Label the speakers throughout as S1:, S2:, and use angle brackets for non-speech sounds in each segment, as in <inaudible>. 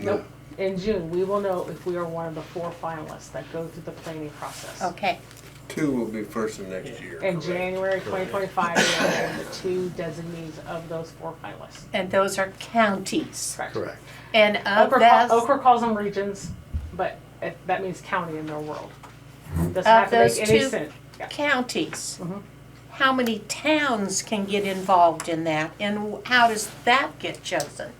S1: Nope. In June, we will know if we are one of the four finalists that go through the planning process.
S2: Okay,
S3: Two will be first of next year.
S1: In
S3: correct?
S1: January 2025, we will have the two designees of those four finalists.
S2: and those are counties.
S1: Correct.
S4: Correct.
S2: And of
S1: Okra,
S2: those,
S1: ca- Okra calls them regions, but it, that means county in their world. Doesn't
S2: Of
S1: have to
S2: those
S1: make any
S2: two-
S1: sense. Yeah.
S2: counties,
S1: Mhm.
S2: how many towns can get involved in that? And how does that get chosen?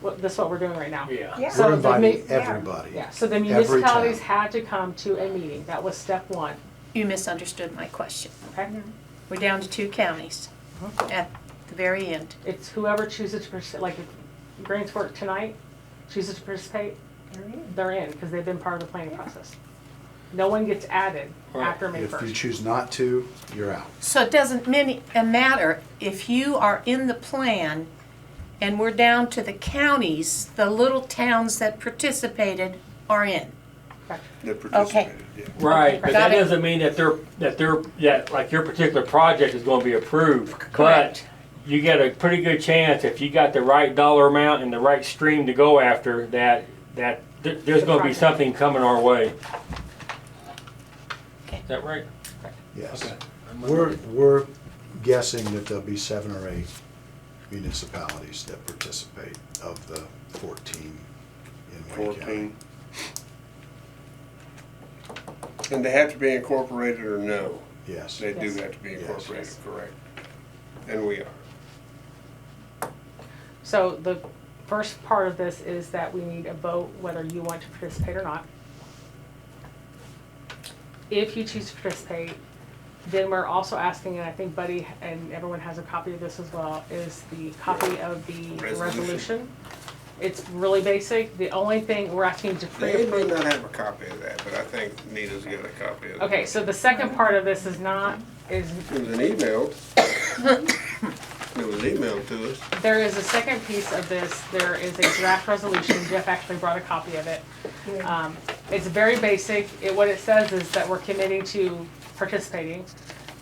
S1: Well, that's what we're doing right now.
S5: Yeah.
S6: Yeah.
S1: So
S4: We're
S1: the
S4: inviting
S1: mi-
S4: everybody.
S1: Yeah, so the
S4: Every
S1: municipalities
S4: town.
S1: had to come to a meeting. That was step one,
S2: You misunderstood my question.
S1: okay?
S2: We're down to two counties
S1: Mm-hmm.
S2: at the very end.
S1: It's whoever chooses to participate, like if Grants Fork tonight chooses to participate, they're in, because they've been part of the planning process. No one gets added
S5: Right.
S1: after May
S4: If you
S1: first.
S4: choose not to, you're out.
S2: So it doesn't many, uh, matter if you are in the plan and we're down to the counties, the little towns that participated are in.
S3: That participated, yeah.
S5: Right, but that
S2: Got it.
S5: doesn't mean that they're, that they're, that like your particular project is gonna be approved.
S2: Correct.
S5: But you get a pretty good chance if you got the right dollar amount and the right stream to go after, that, that th- there's
S1: The
S5: gonna be
S1: project.
S5: something coming our way.
S2: Okay.
S5: Is that right?
S4: Yes.
S5: Okay.
S4: We're, we're guessing that there'll be seven or eight municipalities that participate of the fourteen in Wayne County.
S3: Fourteen. And they have to be incorporated or no?
S4: Yes.
S3: They do
S1: Yes.
S3: have to be
S4: Yes.
S3: incorporated, correct? And we are.
S1: So the first part of this is that we need a vote whether you want to participate or not. If you choose to participate, then we're also asking, and I think Buddy and everyone has a copy of this as well, is the copy of the
S3: Resolution.
S1: resolution. It's really basic. The only thing we're asking you to
S3: They may
S1: pre-approve.
S3: not have a copy of that, but I think Nita's got a copy of it.
S1: Okay, so the second part of this is not, is
S3: It was an email. It was emailed to us.
S1: There is a second piece of this, there is a draft resolution, Jeff actually brought a copy of it. Um, It's very basic, it, what it says is that we're committing to participating,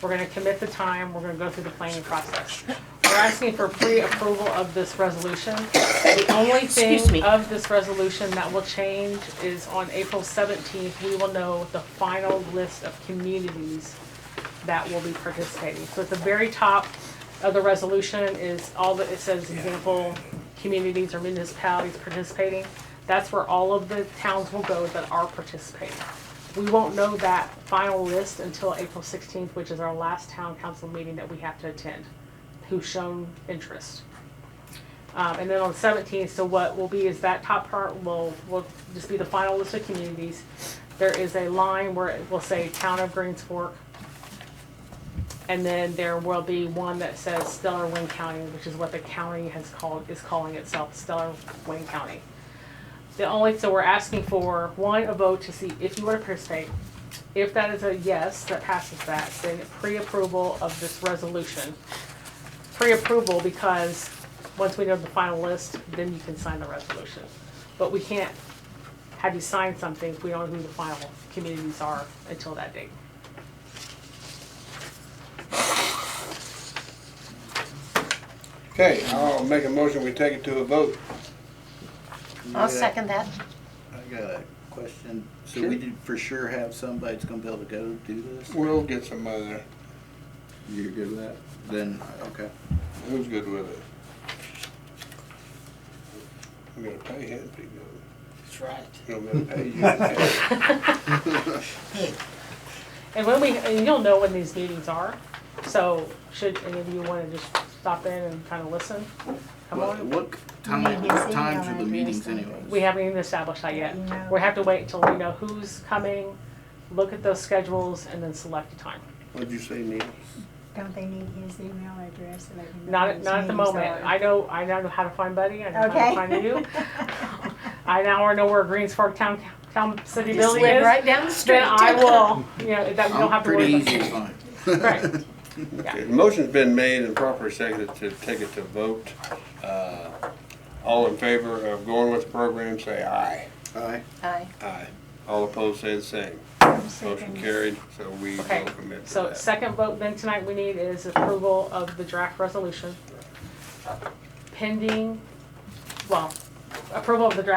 S1: we're gonna commit the time, we're gonna go through the planning process. We're asking for pre-approval of this resolution. The only
S2: Excuse me.
S1: thing of this resolution that will change is on April seventeenth, we will know the final list of communities that will be participating. So at the very top of the resolution is all that, it says example, communities or municipalities participating. That's where all of the towns will go that are participating. We won't know that final list until April sixteenth, which is our last town council meeting that we have to attend, who's shown interest. Um, and then on seventeenth, so what will be is that top part will, will just be the final list of communities. There is a line where it will say Town of Greens Fork, and then there will be one that says Stellar Wayne County, which is what the county has called, is calling itself, Stellar Wayne County. The only, so we're asking for, one, a vote to see if you want to participate. If that is a yes, that passes that, then pre-approval of this resolution. Pre-approval because once we know the final list, then you can sign the resolution. But we can't have you sign something if we don't know who the final communities are until that date.
S3: Okay, I'll make a motion, we take it to a vote.
S2: I'll second that.
S6: I got a question. So we did for sure have somebody that's gonna be able to go do this?
S3: We'll get somebody there.
S6: You're good with that? Then, okay.
S3: Who's good with it? We gotta pay him pretty good.
S7: That's right.
S3: You don't gotta
S7: <laughs>
S3: pay you.
S1: And when we, and you'll know when these meetings are, so should any of you wanna just stop in and kinda listen? Come
S6: What,
S1: on,
S6: what time, what times are the meetings anyways?
S1: we haven't even established that yet.
S8: No.
S1: We have to wait until we know who's coming, look at those schedules, and then select a time.
S3: What'd you say, Neil?
S8: Don't they need his email address so they can? know
S1: Not,
S8: whose
S1: not at the
S8: meetings
S1: moment,
S8: are?
S1: I know, I now know how to find Buddy, I know how to
S8: Okay.
S1: find you. I now know where Greens Fork Town, Town City
S2: Just
S1: Building
S2: live
S1: is,
S2: right down the street.
S1: then I will, you know, that we don't
S6: I'm
S1: have to worry
S6: Oh, pretty
S1: about.
S6: easy to find. <laughs>
S1: Right.
S3: Okay, the Motion's been made and properly seconded to take it to vote. Uh, All in favor of going with the program, say aye.
S6: Aye.
S2: Aye.
S3: Aye. All opposed, say the same. Motion carried, so we will
S1: Okay,
S3: commit to
S1: so
S3: that.
S1: second vote then tonight we need is approval of the draft resolution pending, well, approval of the draft